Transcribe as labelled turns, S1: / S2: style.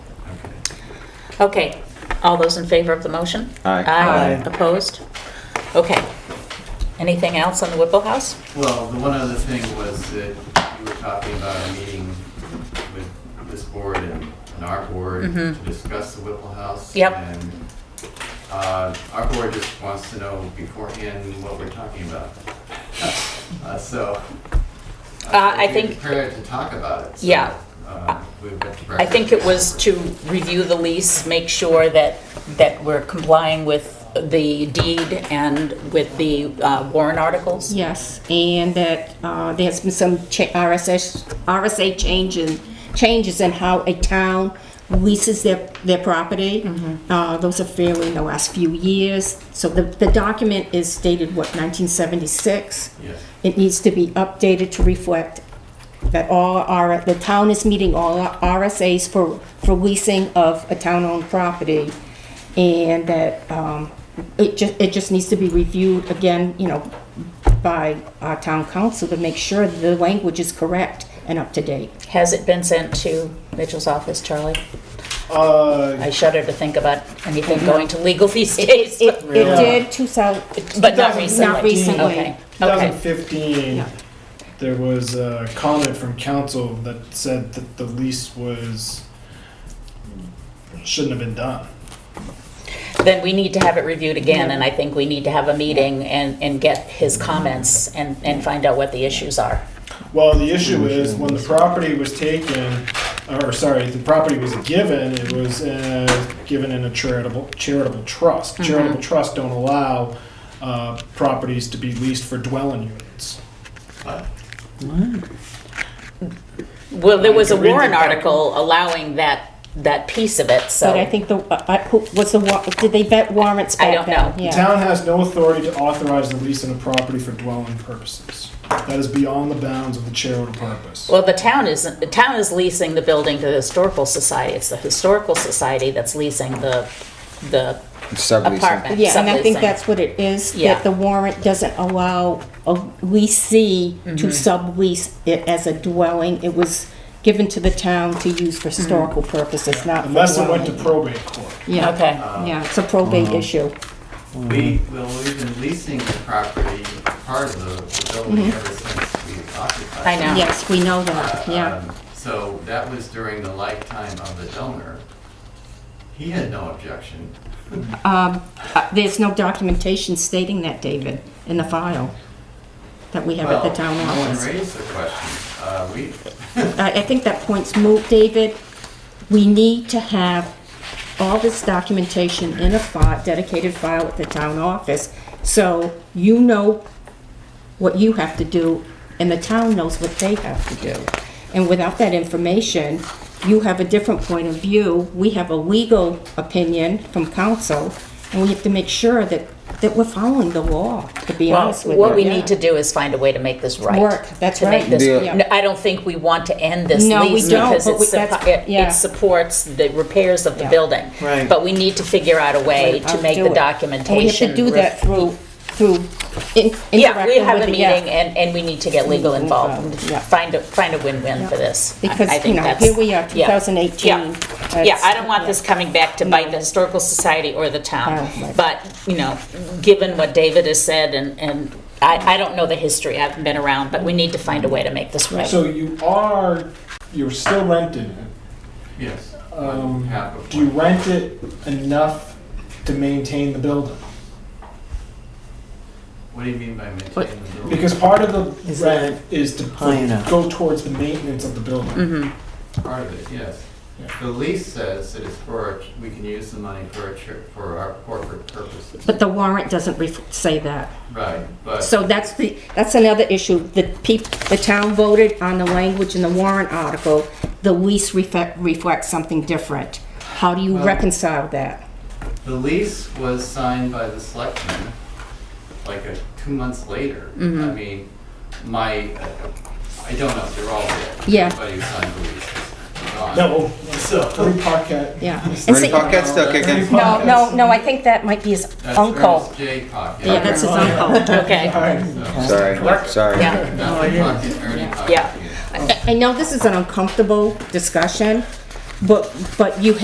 S1: Okay, all those in favor of the motion?
S2: Aye.
S3: Aye.
S1: Opposed? Okay. Anything else on the Whipple House?
S4: Well, the one other thing was that you were talking about a meeting with this board and and our board to
S1: Mhm.
S4: discuss the Whipple House.
S1: Yep.
S4: And uh, our board just wants to know beforehand what we're talking about. Uh, So.
S1: Uh, I
S4: we
S1: think-
S4: Prepared to talk about it. so,
S1: Yeah.
S4: uh, we went to
S1: I think it was to review the lease, make sure that, that we're complying with the deed and with the uh, warrant articles.
S5: Yes, and that uh, there's been some cha- RSS, RSA change in- changes in how a town leases their, their property. Uh, Those are fairly in the last few years. So the, the document is dated, what, 1976?
S4: Yes.
S5: It needs to be updated to reflect that all our, the town is meeting all RSAs for, for leasing of a town-owned property. And that, um, it ju, it just needs to be reviewed again, you know, by our town council to make sure the language is correct and up to date.
S1: Has it been sent to Mitchell's office, Charlie?
S3: Uh,
S1: I shudder to think about anything going to legal these days.
S5: It, it
S3: Yeah.
S5: did two thousand.
S1: But not recently.
S5: Not recently.
S1: Okay, okay.
S3: 2015,
S5: Yeah.
S3: there was a comment from council that said that the lease was, shouldn't have been done.
S1: Then we need to have it reviewed again, and I think we need to have a meeting and, and get his comments and, and find out what the issues are.
S3: Well, the issue is when the property was taken, or sorry, the property was given, it was uh, given in a charitable, charitable trust. Charitable trusts don't allow uh, properties to be leased for dwelling units.
S4: But
S1: Well, there was a
S3: I can read
S1: warrant
S3: the doc-
S1: article allowing that, that piece of it, so.
S5: But I think the, I, I- who, was the, wa- did they vet warrants
S1: I don't
S5: back then?
S1: know.
S3: The
S5: Yeah.
S3: town has no authority to authorize the lease of a property for dwelling purposes. That is beyond the bounds of the charitable purpose.
S1: Well, the town isn't, the town is leasing the building to the historical society. It's the historical society that's leasing the, the
S2: Subleasing.
S1: apartment.
S5: Yeah, and I think
S1: subleasing.
S5: that's what it is,
S1: Yeah.
S5: that the warrant doesn't allow a leasee
S1: Mm-hmm.
S5: to sublease it as a dwelling. It was given to the town to use for
S1: Mm-hmm.
S5: historical purposes, not for
S3: Unless it went to
S5: dwelling.
S3: probate court.
S5: Yeah,
S1: Okay.
S5: Yeah, it's a probate issue.
S4: we, well, we've been leasing the property, part of the- the building ever since we occupied.
S1: Mm-hmm. I know.
S4: it.
S1: Yeah.
S5: Yes, we know that, yeah.
S4: Um, So that was during the lifetime of the donor. He had no objection.
S5: Um, uh, There's no documentation stating that, David, in the file that we have at the town
S4: Well, no one
S5: office.
S4: raised the question. Uh, We,
S5: I, I think that point's moved, David. We need to have all this documentation in a file, dedicated file at the town office, so you know what you have to do, and the town knows what they have to do. And without that information, you have a different point of view, we have a legal opinion from council, and we have to make sure that, that we're following the law, to be
S1: Well,
S5: honest with you.
S1: what we need
S5: Yeah.
S1: to do is find a way to make this right.
S5: Work, that's
S1: To make
S5: right.
S1: this-
S2: Yeah.
S1: No, I don't think we want to end this
S5: No, we
S1: lease
S5: don't,
S1: because
S5: but
S1: it
S5: we-
S1: suppo-
S5: that's-
S1: it
S5: yeah.
S1: it supports the repairs of the
S5: Yeah.
S1: building.
S3: Right.
S1: But we need to figure out a way
S5: I'll
S1: to make
S5: do
S1: the
S5: it.
S1: documentation.
S5: And we have to do that through, through in- interacting with the...
S1: Yeah, we have a
S5: yeah.
S1: meeting and, and we need to get legal
S5: Involved,
S1: involved.
S5: yeah.
S1: Find a, find a win-win for this. I- I
S5: Because, you
S1: think
S5: know,
S1: that's-
S5: here we are,
S1: yeah.
S5: 2018.
S1: Yeah. Yeah,
S5: That's-
S1: I don't want this coming back to bite the Historical Society or the town.
S5: Oh, right.
S1: But, you know, given what David has said and, and I, I don't know the history, I haven't been around, but we need to find a way to make this right.
S3: So you are, you're still renting it.
S4: yes, one
S3: Um,
S4: half of
S3: Do you
S4: one.
S3: rent it enough to maintain the building?
S4: What do you mean by maintaining the building?
S3: Because part of the
S6: Is
S3: rent is to
S6: high enough?
S3: go towards the maintenance of the building.
S1: Mhm.
S4: Part of it, yes.
S3: Yeah.
S4: The lease says that it's for, we can use the money for a chur- for our corporate purposes.
S5: But the warrant doesn't ref- say that.
S4: Right, but,
S5: So that's the, that's another issue. The peop, the town voted on the language in the warrant article. The lease reflect, reflects something different. How do you
S4: Well-
S5: reconcile that?
S4: the lease was signed by the selectmen like a, two months later. I
S5: Mm-hmm.
S4: mean, my, I don't know, they're all dead.
S5: Yeah.
S4: Everybody who signed the lease is gone.
S3: No,
S4: So.
S3: free pocket.
S5: Yeah. And
S2: Ready,
S5: see-
S2: pocket, still kicking?
S5: No, no, no, I think that might be his
S4: That's
S5: uncle.
S4: Ernest J. Pocket.
S5: Yeah, that's his
S3: Oh,
S5: uncle.
S1: Okay,
S3: Alright.
S2: Sorry, sorry.
S1: yeah,
S4: Not like Pocket, Ernie Pocket.
S1: Yeah.
S5: I I know this is an uncomfortable discussion, but, but you